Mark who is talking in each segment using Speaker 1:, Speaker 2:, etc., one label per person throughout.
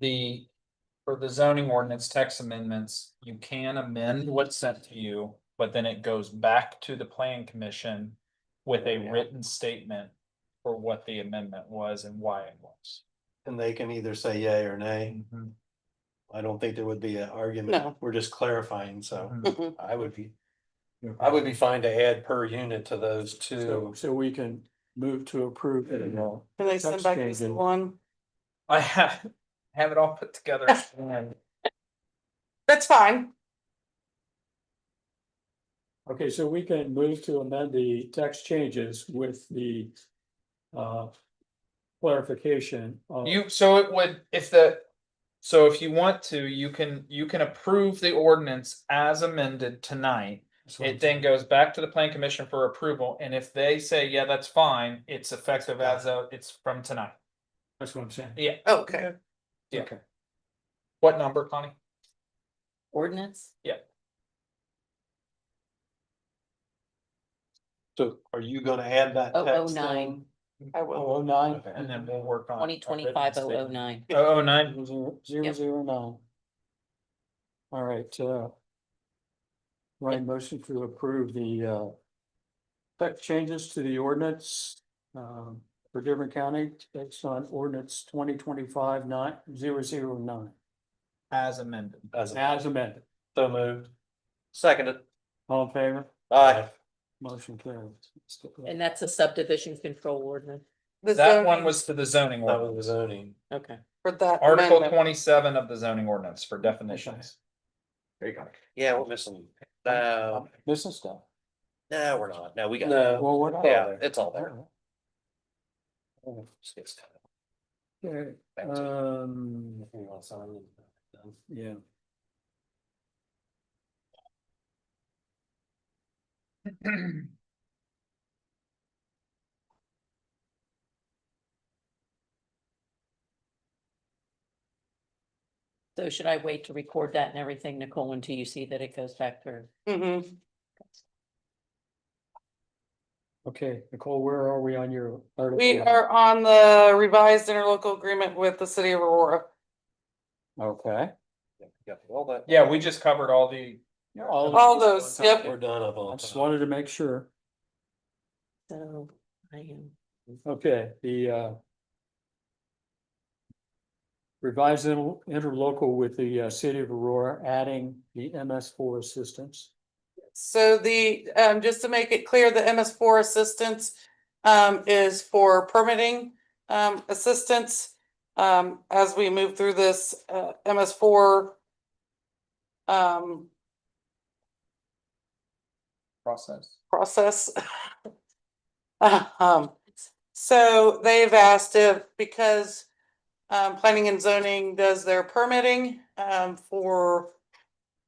Speaker 1: the, for the zoning ordinance text amendments, you can amend what's sent to you, but then it goes back to the plan commission with a
Speaker 2: Yeah.
Speaker 1: written statement for what the amendment was and why it was.
Speaker 2: And they can either say yay or nay. I don't think there would be an argument.
Speaker 3: No.
Speaker 2: We're just clarifying, so
Speaker 1: Mhm.
Speaker 3: Mhm.
Speaker 2: I would be, I would be fine to add per unit to those
Speaker 4: So,
Speaker 2: two.
Speaker 4: so we can move to approve the law.
Speaker 3: Can they send
Speaker 4: Text
Speaker 3: back this
Speaker 4: changes.
Speaker 3: one?
Speaker 1: I have, have it all put together. and
Speaker 3: That's fine.
Speaker 4: Okay, so we can move to amend the text changes with the uh clarification of.
Speaker 1: You, so it would, if the, so if you want to, you can, you can approve the ordinance as amended tonight. It then goes back to the plan commission for approval, and if they say, yeah, that's fine, it's effective as of, it's from tonight.
Speaker 4: That's what I'm saying.
Speaker 1: Yeah,
Speaker 3: Okay.
Speaker 1: Yeah.
Speaker 4: Okay.
Speaker 1: what number, Connie?
Speaker 3: Ordinance?
Speaker 2: So are you gonna add that?
Speaker 5: Oh, oh,
Speaker 2: text in?
Speaker 5: nine.
Speaker 3: I will.
Speaker 4: Oh, oh, nine.
Speaker 2: Okay.
Speaker 1: And then we'll work on.
Speaker 5: Twenty twenty-five oh oh nine.
Speaker 1: Oh, oh nine,
Speaker 4: Zero, zero,
Speaker 5: Yep.
Speaker 4: zero, nine. All right, uh. Ryan motion to approve the, uh. Text changes to the ordinance, um, for Dearborn County, based on ordinance twenty twenty-five nine, zero, zero, nine,
Speaker 1: as amended.
Speaker 2: As a-
Speaker 4: as amended.
Speaker 2: So moved. Seconded.
Speaker 4: All in favor?
Speaker 2: Aye.
Speaker 4: Motion carries.
Speaker 5: And that's a subdivision control ordinance.
Speaker 3: The
Speaker 1: That one
Speaker 3: zoning
Speaker 1: was to the zoning
Speaker 2: That was the
Speaker 1: ordinance,
Speaker 2: zoning.
Speaker 5: Okay.
Speaker 3: For that
Speaker 1: article
Speaker 3: amendment,
Speaker 1: twenty-seven of the zoning ordinance for definitions.
Speaker 2: There you go. Yeah, we're missing.
Speaker 4: No, This is stuff.
Speaker 2: no, Uh, we're not. No, we got.
Speaker 4: Well, what? else?
Speaker 2: it's all
Speaker 4: Okay, um, yeah.
Speaker 5: So should I wait to record that and everything, Nicole, until you see that it goes back through?
Speaker 3: mhm.
Speaker 4: Okay, Nicole, where are we on your?
Speaker 3: we
Speaker 4: article?
Speaker 3: are on the revised interlocal agreement with the city of Aurora.
Speaker 4: Okay.
Speaker 1: Yeah, we just covered all the,
Speaker 4: All-
Speaker 3: All those, yep.
Speaker 2: We're done of
Speaker 4: I
Speaker 2: all.
Speaker 4: just wanted to make sure.
Speaker 5: So I am.
Speaker 4: Okay, the uh. Revised inter- interlocal with the uh, city of Aurora, adding the MS four assistance.
Speaker 3: So the, um, just to make it clear, the MS four assistance um, is for permitting um, assistance. Um, as we move through this uh, MS four um,
Speaker 1: process.
Speaker 3: process. Um, so they've asked if, because um, planning and zoning does their permitting um, for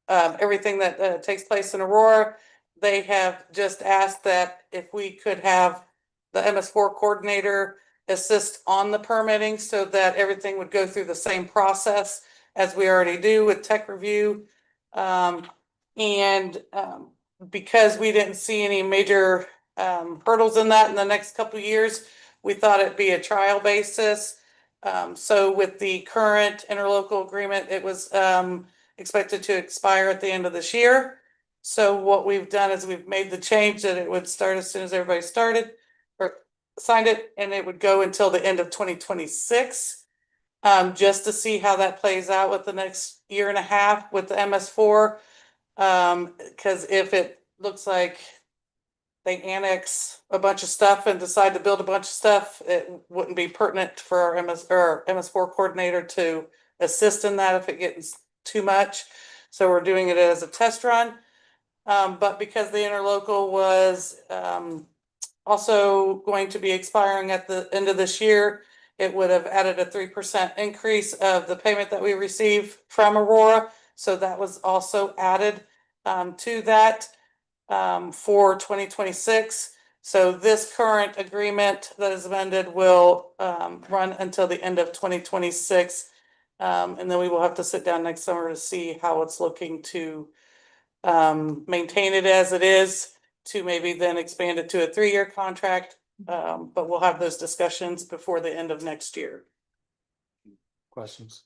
Speaker 3: um, everything that uh, takes place in Aurora, they have just asked that if we could have the MS four coordinator assist on the permitting so that everything would go through the same process as we already do with tech review. Um, and um, because we didn't see any major um hurdles in that in the next couple of years, we thought it'd be a trial basis. Um, so with the current interlocal agreement, it was um expected to expire at the end of this year. So what we've done is we've made the change that it would start as soon as everybody started or signed it and it would go until the end of twenty twenty-six. Um, just to see how that plays out with the next year and a half with the MS four. Um, cause if it looks like they annex a bunch of stuff and decide to build a bunch of stuff, it wouldn't be pertinent for our MS, or MS four coordinator to assist in that if it gets too much. So we're doing it as a test run. Um, but because the interlocal was, um, also going to be expiring at the end of this year, it would have added a three percent increase of the payment that we receive from Aurora. So that was also added um, to that um, for twenty twenty-six. So this current agreement that is amended will um, run until the end of twenty twenty-six. Um, and then we will have to sit down next summer to see how it's looking to um, maintain it as it is, to maybe then expand it to a three-year contract. Um, but we'll have those discussions before the end of next year.
Speaker 4: Questions?